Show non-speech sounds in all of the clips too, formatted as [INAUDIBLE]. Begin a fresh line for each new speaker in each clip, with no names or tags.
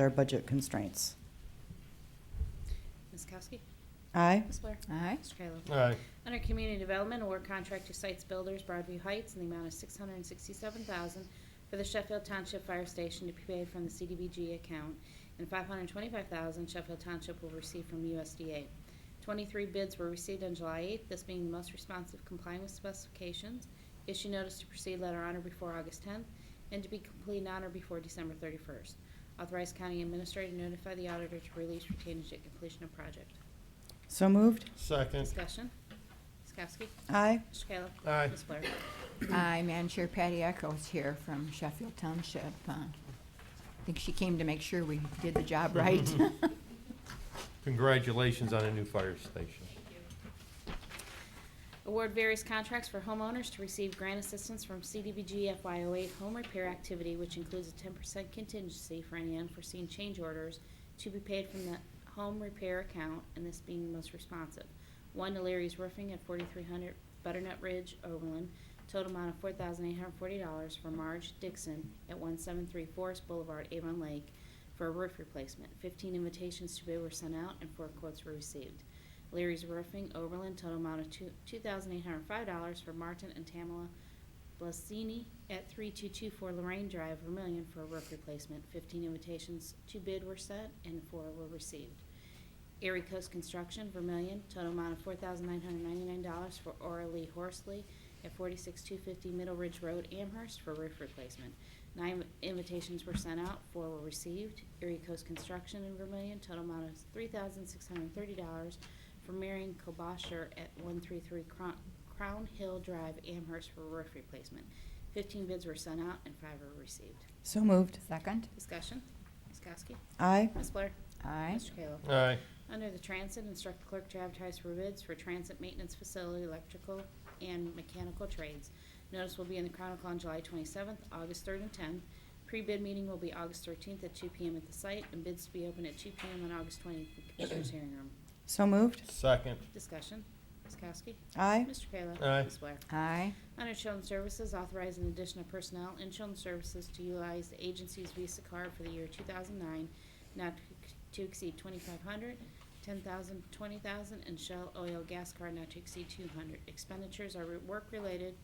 their budget constraints.
Ms. Kowski?
Aye.
Ms. Blair?
Aye.
Mr. Kayla?
Aye.
Under Community Development, award contract to Sites Builders Broadview Heights in the amount of $667,000 for the Sheffield Township Fire Station to be paid from the CDBG account, and $525,000 Sheffield Township will receive from USDA. 23 bids were received on July 8th, this being the most responsive complying with specifications. Issue notice to proceed letter honor before August 10th, and to be complete honor before December 31st. Authorize County Administrator to notify the auditor to release retainage at completion of project.
So moved.
Second.
Discussion. Ms. Kowski?
Aye.
Mr. Kayla?
Aye.
Ms. Blair?
Aye, Madam Chair, Patty Echoes here from Sheffield Township. Uh, I think she came to make sure we did the job right. [LAUGHS]
Congratulations on a new fire station.
Award various contracts for homeowners to receive grant assistance from CDBG FY08 home repair activity, which includes a 10% contingency for any unforeseen change orders to be paid from the home repair account, and this being the most responsive. One to Larry's Roofing at 4300 Butternut Ridge, Overland, total amount of $4,840 for Marge Dixon at 173 Forest Boulevard, Avon Lake, for a roof replacement. 15 invitations to bid were sent out, and four quotes were received. Larry's Roofing, Overland, total amount of two two $2,805 for Martin and Tamela Blasini at 3224 Lorraine Drive, Vermillion, for a roof replacement. 15 invitations to bid were sent, and four were received. Erie Coast Construction, Vermillion, total amount of $4,999 for Aura Lee Horsley at 46250 Middle Ridge Road, Amherst, for roof replacement. Nine invitations were sent out, four were received. Erie Coast Construction in Vermillion, total amount of $3,630 for Marion Kobasher at 133 Crown- Crown Hill Drive, Amherst, for roof replacement. 15 bids were sent out and five were received.
So moved.
Second?
Discussion, Ms. Kowski,
Aye.
Ms. Blair,
Aye.
Mr. Kayla.
Aye.
Under the Transit, instruct the clerk to advertise for bids for transit maintenance facility, electrical, and mechanical trades. Notice will be in the Chronicle on July 27th, August 3rd, and 10th. Pre-bid meeting will be August 13th at 2 PM at the site, and bids to be open at 2 PM on August 20th in the Commissioners' hearing room.
So moved.
Second.
Discussion. Ms. Kowski?
Aye.
Mr. Kayla?
Aye.
Ms. Blair?
Aye.
Under Children's Services, authorize an addition of personnel in Children's Services to utilize the agency's Visa card for the year 2009, not to exceed 2,500, 10,000, 20,000, and Shell Oil Gas Card not to exceed 200. Expenditures are work-related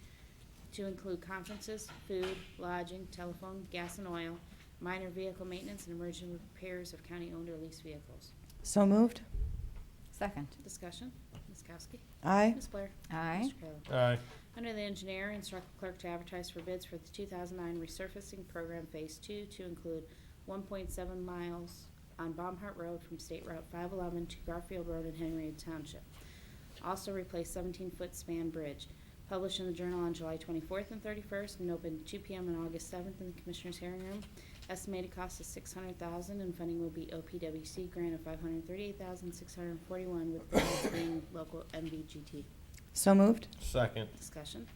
to include conferences, food, lodging, telephone, gas and oil, minor vehicle maintenance, and emergency repairs of county-owned or leased vehicles.
So moved.
Second?
Discussion, Ms. Kowski?
Aye.
Ms. Blair?
Aye.
Mr. Kayla?
Aye.
Under the engineer, instruct the clerk to advertise for bids for the 2009 resurfacing program Phase 2 to include 1.7 miles on Baumhart Road from State Route 511 to Garfield Road in Henry Township. Also replace 17-foot span bridge. Published in the Journal on July 24th and 31st and open 2 p.m. on August 7th in the Commissioners' hearing room. Estimated cost is $600,000 and funding will be OPWC grant of $538,641 with grants being local MVGT.
So moved.
Second.
Discussion.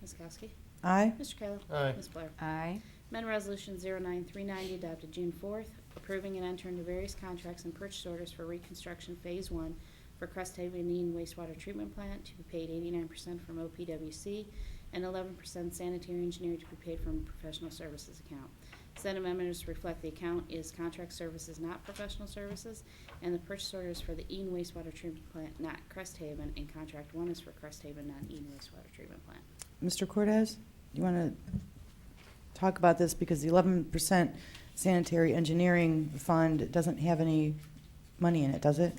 Ms. Kowski?
Aye.
Mr. Kayla?
Aye.
Ms. Blair?
Aye.
Amendment Resolution 09390 adopted June 4th, approving and entering into various contracts and purchase orders for reconstruction Phase 1 for Crest Haven Indian Wastewater Treatment Plant to be paid 89% from OPWC and 11% sanitary engineer to be paid from professional services account. Said amendments reflect the account is contract services, not professional services, and the purchase order is for the Ean Wastewater Treatment Plant, not Crest Haven, and Contract 1 is for Crest Haven, not Ean Wastewater Treatment Plant.
Mr. Cortez, you want to talk about this because the 11% sanitary engineering fund doesn't have any money in it, does it?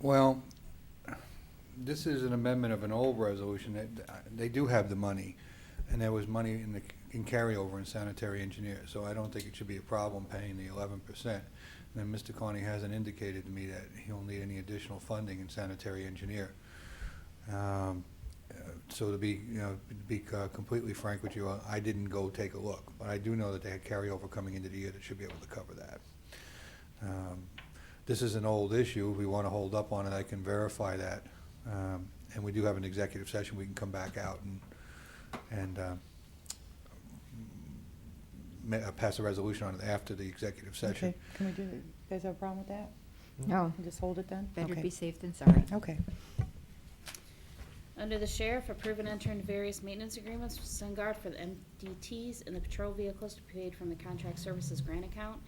Well, this is an amendment of an old resolution that, uh, they do have the money, and there was money in the, in carryover in sanitary engineer, so I don't think it should be a problem paying the eleven percent. And then Mr. Carney hasn't indicated to me that he'll need any additional funding in sanitary engineer. Um, uh, So to be, you know, to be uh, completely frank with you, I didn't go take a look, but I do know that they had carryover coming into the year that should be able to cover that. Um, this is an old issue, we want to hold up on it, I can verify that. Um, And we do have an executive session, we can come back out and, and uh, ma- uh, pass a resolution on it after the executive session.
Okay. Can we do, you guys have a problem with that?
No,
Can we Just hold it then?
better
Okay.
be safe than sorry.
Okay.
Under the sheriff, approve and enter into various maintenance agreements with SunGard for the MDTs and the patrol vehicles to be paid from the contract services grant account.